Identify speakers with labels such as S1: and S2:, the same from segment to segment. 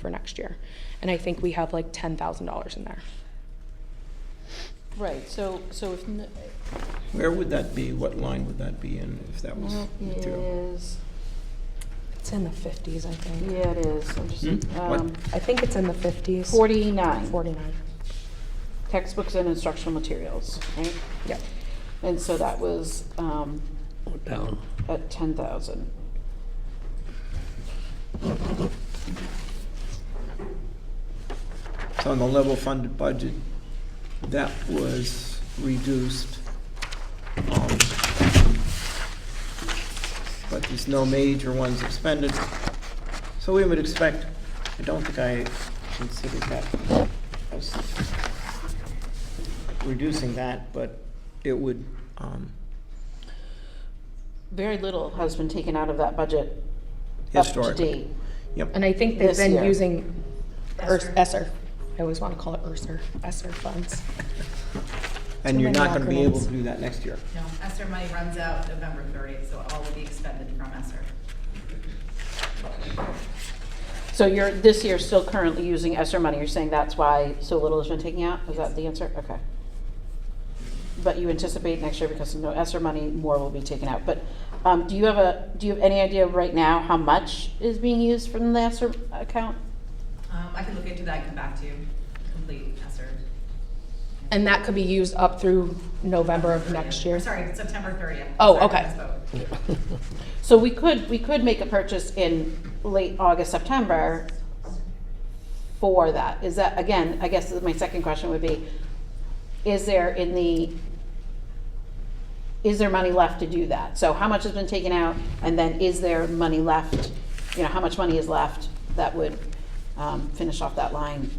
S1: for next year. And I think we have like $10,000 in there.
S2: Right, so, so if, n-
S3: Where would that be? What line would that be in if that was
S2: well, it
S3: material?
S2: is,
S1: It's in the 50s, I think.
S2: yeah, it is, I'm just,
S3: Hmm? What?
S2: um,
S1: I think it's in the 50s.
S2: forty-nine,
S1: 49.
S2: textbooks and instructional materials, right?
S1: Yep.
S2: And so that was, um,
S4: What town?
S2: at ten thousand.
S3: So on the level funded budget, that was reduced. um, But there's no major ones expended. So we would expect, I don't think I considered that, I was reducing that, but it would, um,
S2: Very little has been taken out of that budget up to
S3: historically.
S2: date.
S3: Yep,
S1: And I think they've
S2: This
S1: been
S2: year.
S1: using ERS ESSER. I always want to call it ERSER, ESSER funds.
S3: and you're
S1: many
S3: not gonna be able
S1: acronyms.
S3: to do that next year.
S5: No, ESER money runs out November 30th, so all will be expended from ESER.
S2: So you're, this year still currently using ESER money, you're saying that's why so little has been taken out, is that the answer? Okay. But you anticipate next year because of no ESER money, more will be taken out, but, um, do you have a, do you have any idea right now how much is being used from the ESER account?
S5: Um, I can look into that and come back to you, complete ESER.
S1: And that could be used up through November of next year.
S5: Sorry, September 30th.
S1: Oh,
S5: Sorry,
S1: okay.
S5: I misspoke.
S2: So we could, we could make a purchase in late August, September for that. Is that, again, I guess my second question would be, is there in the, is there money left to do that? So how much has been taken out, and then is there money left? You know, how much money is left that would um, finish off that line?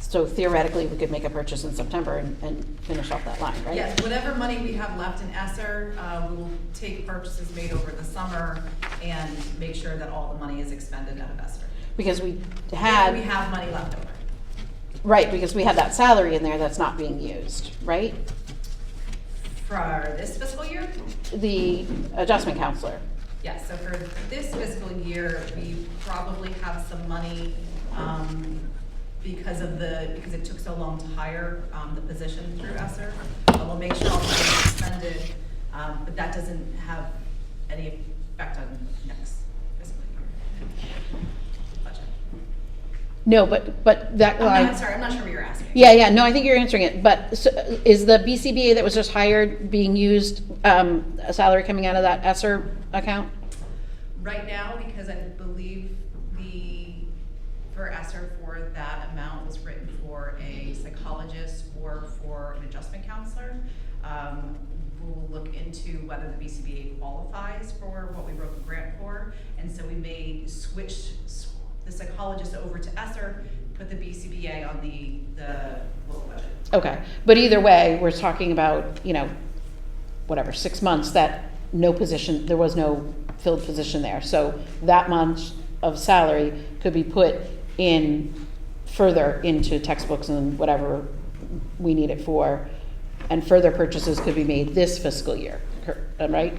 S2: So theoretically, we could make a purchase in September and, and finish off that line, right?
S5: Yes, whatever money we have left in ESER, uh, we will take purchases made over the summer and make sure that all the money is expended out of ESER.
S2: Because we had.
S5: If we have money left over.
S2: Right, because we had that salary in there that's not being used, right?
S5: For this fiscal year?
S2: The adjustment counselor.
S5: Yes, so for this fiscal year, we probably have some money um, because of the, because it took so long to hire um, the position through ESER. But we'll make sure all money is expended, um, but that doesn't have any effect on next fiscal year. budget.
S2: No, but, but that
S5: I'm not- I'm
S2: line,
S5: sorry, I'm not sure what you're asking.
S2: yeah, yeah, no, I think you're answering it, but so, is the BCBA that was just hired being used, um, a salary coming out of that ESER account?
S5: Right now, because I believe the, for ESER for that amount was written for a psychologist or for an adjustment counselor. Um, We'll look into whether the BCBA qualifies for what we wrote the grant for. And so we may switch s- the psychologist over to ESER, put the BCBA on the, the local budget.
S2: Okay, but either way, we're talking about, you know, whatever, six months that no position, there was no filled position there. So that month of salary could be put in further into textbooks and whatever we need it for. And further purchases could be made this fiscal year, cor- am I right?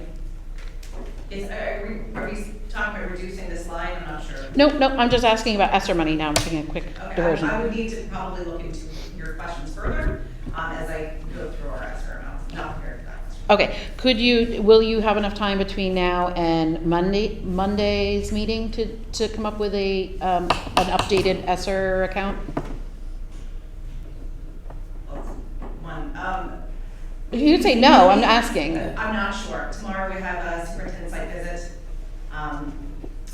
S5: Is, are we, are we talking about reducing this line? I'm not sure.
S2: No, no, I'm just asking about ESSER money now, I'm taking a quick
S5: Okay, um,
S2: diversion.
S5: I- I would need to probably look into your questions further um, as I go through our escrow amounts, not prepared for that question.
S2: Okay, could you, will you have enough time between now and Monday, Monday's meeting to, to come up with a, um, an updated ESER account?
S5: Well, One, um,
S2: If you say no, I'm asking.
S5: I'm not sure. Tomorrow we have a superintendent site visit. Um,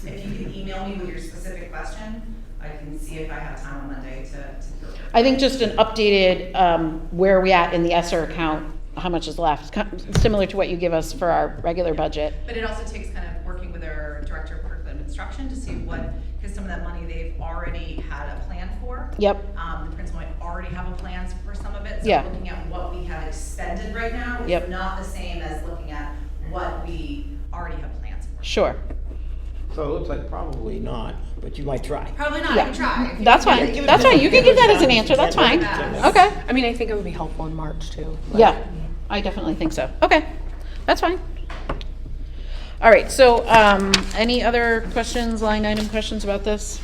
S5: If you can email me with your specific question, I can see if I have time on Monday to, to. go over it.
S2: I think just an updated, um, where are we at in the ESER account, how much is left, kind of similar to what you give us for our regular budget.
S5: But it also takes kind of working with our director of curriculum instruction to see what, because some of that money they've already had a plan for.
S2: Yep,
S5: Um, the principal might already have a plan for some of it, so
S2: Yeah.
S5: looking at what we have expended right now
S2: Yep.
S5: is not the same as looking at what we already have plans for.
S2: sure.
S3: So it looks like probably not, but you might try.
S5: Probably not,
S2: Yeah.
S5: I can try.
S2: That's
S3: Yeah, give
S2: fine,
S3: it
S2: that's
S3: to
S2: fine,
S3: them.
S2: you can give that as an answer, that's fine. Okay.
S1: I mean, I think it would be helpful in March too. like-
S2: Yeah, I definitely think so. Okay, that's fine. All right, so um, any other questions, line item questions about this?